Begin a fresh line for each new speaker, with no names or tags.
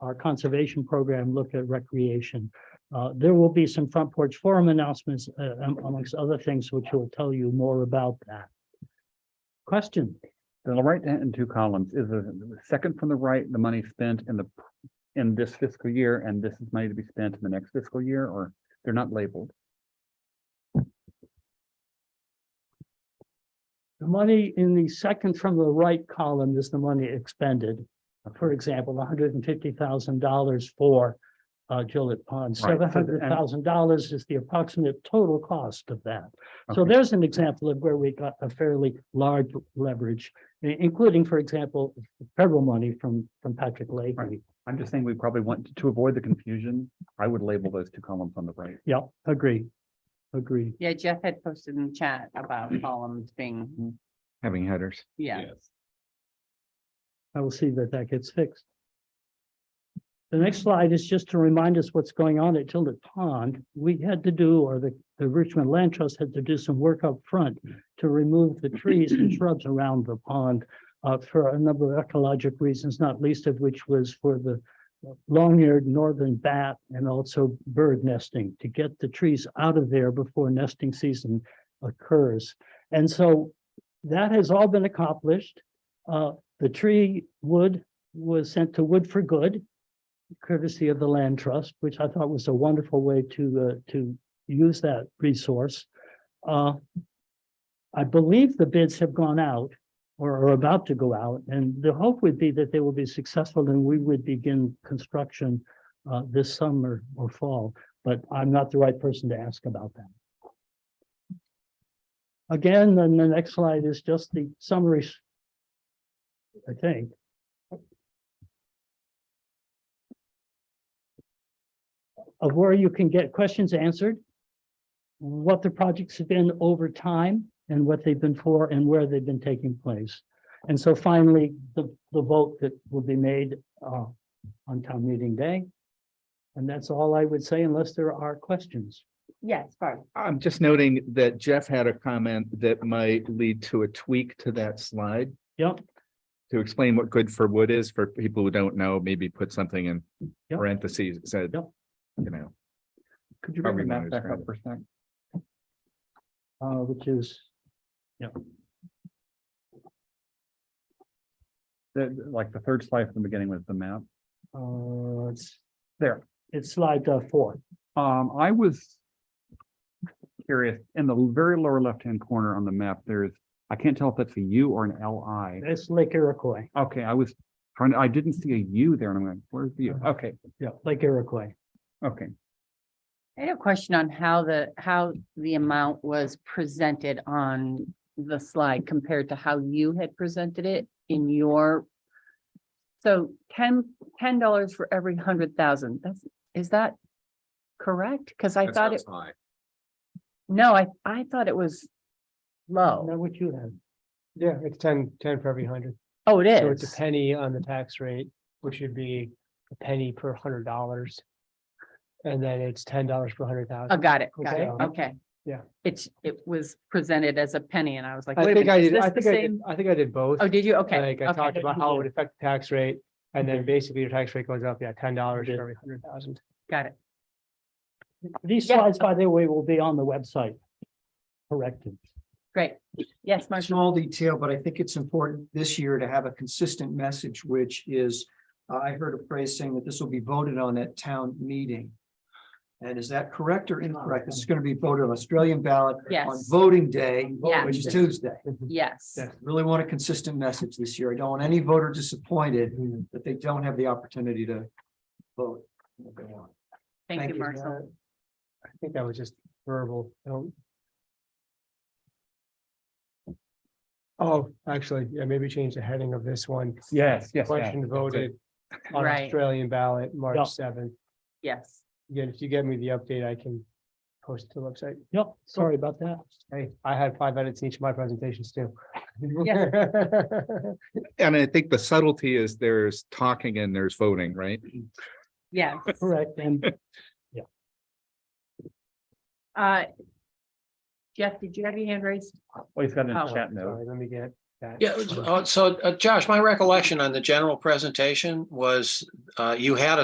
our conservation program look at recreation. Uh, there will be some front porch forum announcements uh, am- amongst other things, which will tell you more about that. Question?
The right hand in two columns is the the second from the right, the money spent in the, in this fiscal year, and this is money to be spent in the next fiscal year, or they're not labeled.
The money in the second from the right column is the money expended. For example, hundred and fifty thousand dollars for uh, Gillette Pond.
Right, so the-
Seven
and-
hundred thousand dollars is the approximate total cost of that. So
Okay.
there's an example of where we got a fairly large leverage, i- including, for example, federal money from, from Patrick Leahy.
Right. I'm just saying we probably want to avoid the confusion. I would label those two columns on the right.
Yep, agree, agree.
Yeah, Jeff had posted in the chat about columns being,
Having headers.
yeah,
I will see that that gets fixed. The next slide is just to remind us what's going on at Tilden Pond. We had to do, or the, the Richmond Land Trust had to do some work up front to remove the trees and shrubs around the pond uh, for a number of ecologic reasons, not least of which was for the long-eared northern bat and also bird nesting, to get the trees out of there before nesting season occurs. And so that has all been accomplished. Uh, the tree wood was sent to Wood for Good, courtesy of the land trust, which I thought was a wonderful way to, uh, to use that resource. Uh, I believe the bids have gone out or are about to go out, and the hope would be that they will be successful and we would begin construction uh, this summer or fall, but I'm not the right person to ask about that. Again, then the next slide is just the summary s- I think. Of where you can get questions answered. What the projects have been over time and what they've been for and where they've been taking place. And so finally, the, the vote that will be made, uh, on town meeting day. And that's all I would say unless there are questions.
yes, Barb.
I'm just noting that Jeff had a comment that might lead to a tweak to that slide
Yep,
to explain what good for wood is for people who don't know, maybe put something in
Yep.
parentheses, that said,
Yep.
you know,
Could you bring
Probably
the
not
map back
describe
up
it.
for a sec?
uh, which is,
The, like the third slide from the beginning was the map.
uh, it's,
There.
it's slide uh, four.
Um, I was curious, in the very lower left-hand corner on the map, there's, I can't tell if that's a U or an L I.
That's Lake Iroquois.
Okay, I was trying, to. I didn't see a U there and I'm like, where's the U?
Uh-huh.
Okay,
Yeah, Lake Iroquois.
okay.
I had a question on how the, how the amount was presented on the slide compared to how you had presented it in your. So ten, ten dollars for every hundred thousand, that's, is that correct? Cause I
That
thought it,
sounds high.
no, I, I thought it was
Now
low.
what you have.
Yeah, it's ten, ten for every hundred.
Oh, it
So it's a
is.
penny on the tax rate, which would be a penny per hundred dollars. And then it's ten dollars per hundred
Oh,
thousand.
got it, got it,
Okay.
okay.
Yeah.
It's, it was presented as a penny and I was like.
I
wait a
think I
minute, is
did,
this
I
the
think I
same?
did, I think I did both.
Oh, did you? Okay.
Like I talked about how it would affect the tax rate and then
Okay.
basically your tax rate goes up, yeah, ten dollars
Okay.
for every hundred thousand.
Got it.
These
Yeah.
slides, by the way, will be on the website. Corrected.
Great. Yes, Marshall.
Small detail, but I think it's important this year to have a consistent message, which is, uh, I heard a phrase saying that this will be voted on at town meeting. And is that correct or incorrect? This is going to be voted on Australian ballot on
Yes.
voting day,
Yeah.
which is Tuesday.
Yes.
Yeah.
Really want a consistent message this year. I don't want any voter disappointed
Mhm.
that they don't have the opportunity to vote. Go on.
Thank you,
Uh,
Marshall.
I think that was just verbal. I don't- Oh, actually, yeah, maybe change the heading of this one.
Yes, yes. yeah,
Question
that's it.
voted on
Right.
Australian ballot,
Yeah.
March seventh.
Yes.
Again, if you get me the update, I can post it to the website.
Yep, sorry about that.
Hey, I had five edits in each of my presentations too.
and I think the subtlety is there's talking and there's voting, right?
Yes.
Correct, and
Uh, Jeff, did you have your hand raised?
Oh, he's got it in
Oh,
the chat
Oh,
note.
Sorry, let me get,
that.
Yeah, uh, so uh, Josh, my recollection on the general presentation was uh, you had a